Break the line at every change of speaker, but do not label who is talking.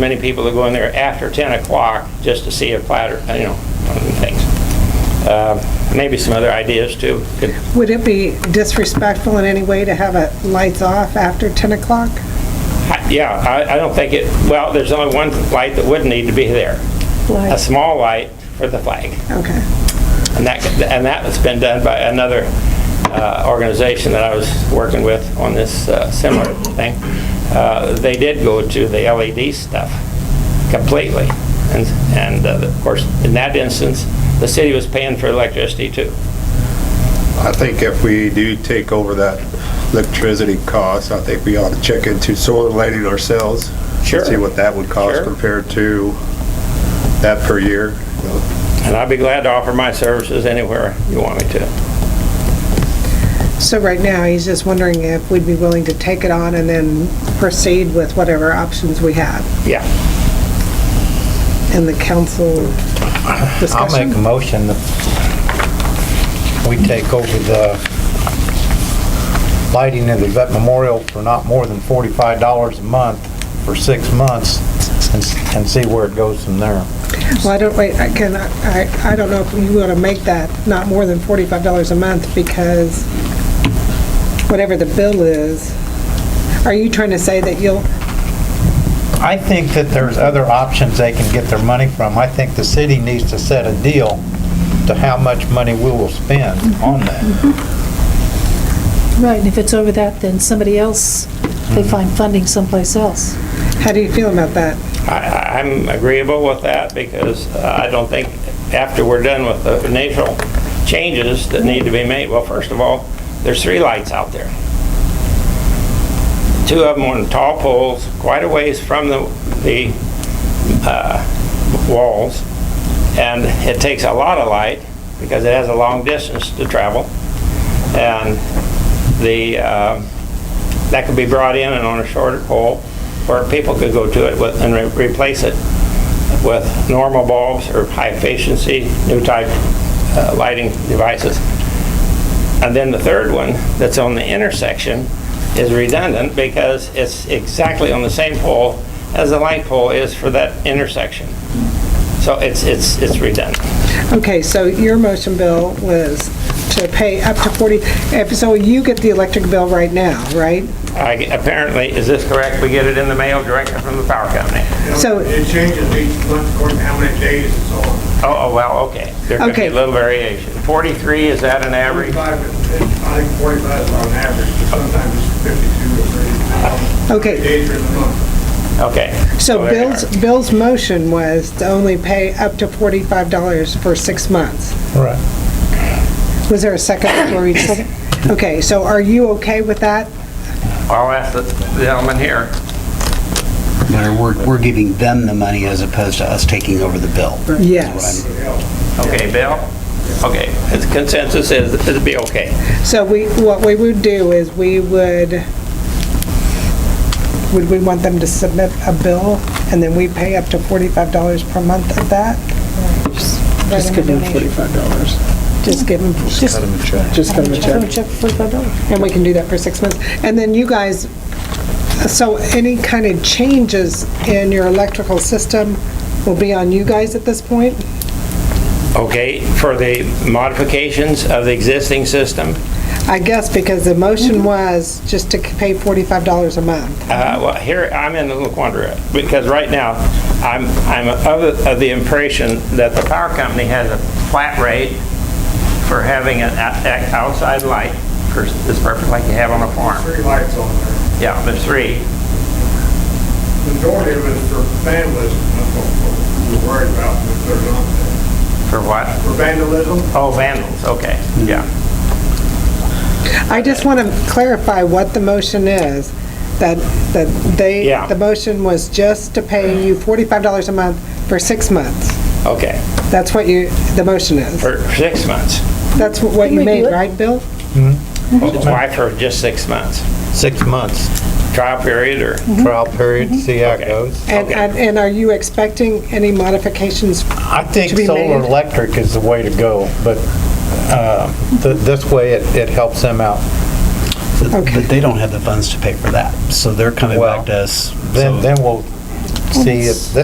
Many people that go in there after 10 o'clock just to see a platter, you know, other things. Uh, Maybe some other ideas too. Could-
Would it be disrespectful in any way to have it lights off after 10 o'clock?
I- Yeah, I, I don't think it, well, there's only one light that would need to be there.
Light.
A small light for the flag.
Okay.
And that, and that has been done by another uh, organization that I was working with on this uh, similar thing. Uh, They did go to the LED stuff completely. And, and uh, of course, in that instance, the city was paying for electricity too.
I think if we do take over that electricity cost, I think we ought to check into solar lighting ourselves.
Sure.
See what that would cost
Sure.
compared to that per year. you know.
And I'd be glad to offer my services anywhere you want me to.
So right now, he's just wondering if we'd be willing to take it on and then proceed with whatever options we had
Yeah.
in the council
I'll make a
discussion.
motion that we take over the lighting of the vet memorial for not more than $45 a month for six months and s- and see where it goes from there.
Well, I don't, wait, I can, I, I don't know if you want to make that not more than $45 a month because whatever the bill is, are you trying to say that you'll,
I think that there's other options they can get their money from. I think the city needs to set a deal to how much money we will spend on that.
Right, and if it's over that, then somebody else, they find funding someplace else.
how do you feel about that?
I, I'm agreeable with that because uh, I don't think after we're done with the initial changes that need to be made, well, first of all, there's three lights out there. Two of them on tall poles, quite a ways from the, the uh, walls. And it takes a lot of light because it has a long distance to travel. And the, uh, that could be brought in and on a shorter pole, where people could go to it with, and re- replace it with normal bulbs or high-efficiency, new type uh, lighting devices. And then the third one, that's on the intersection, is redundant because it's exactly on the same pole as the light pole is for that intersection. So it's, it's, it's redundant.
Okay, so your motion, Bill, was to pay up to 40, if- so you get the electric bill right now, right?
I g apparently, is this correct? We get it in the mail directly from the power company?
So-
It changes each month according to how many days it's on.
Oh, oh, well, okay. There could be
Okay.
a little variation. 43, is that an average?
Forty-five, is- I think forty-five is on average, but sometimes it's fifty-two or thirty.
Okay.
Days in the month.
Okay.
So
there
Bill's,
you
Bill's motion was to only pay up to $45 for six months.
Right.
Was there a second before we just- Okay, so are you okay with that?
are. I'll ask the the gentleman here.
matter, we're, we're giving them the money as opposed to us taking over the bill. is what I'm-
Yes.
Okay, Bill? Okay, his consensus is it'd be okay.
So we, what we would do is we would, would we want them to submit a bill and then we pay up to $45 per month of that?
Just give them forty-five dollars.
Just give them
Just
Just give them a
throw a
check.
check for $45.
And we can do that for six months. And then you guys, so any kind of changes in your electrical system will be on you guys at this point?
Okay, for the modifications of the existing system,
I guess because the
Mm-hmm.
motion was just to pay $45 a month.
Uh, Well, here, I'm in a little quandary, because right now, I'm, I'm of the- of the impression that the power company has a flat rate for having an out- out- outside light for this purpose, like you have on a farm.
Three lights on there.
Yeah, there's three.
Majority of it is for vandalism, that's what we're worried about, if they're not there.
For what?
For vandalism,
Oh, vandals, okay, yeah.
I just want to clarify what the motion is, that, that they,
Yeah.
the motion was just to pay you $45 a month for six months.
Okay,
That's what you, the motion is.
for six months.
That's what you
Can we do
made,
it?
right, Bill?
Why for just six months?
Six months
Trial period or?
trial period, see how it
Okay.
goes.
And, and and are you expecting any modifications
I think
to be
solar
made?
electric is the way to go, but uh, th- this way it it helps them out.
Okay.
But they don't have the funds to pay for that, so they're coming
Well,
back to us.
Then,
so-
then we'll see if,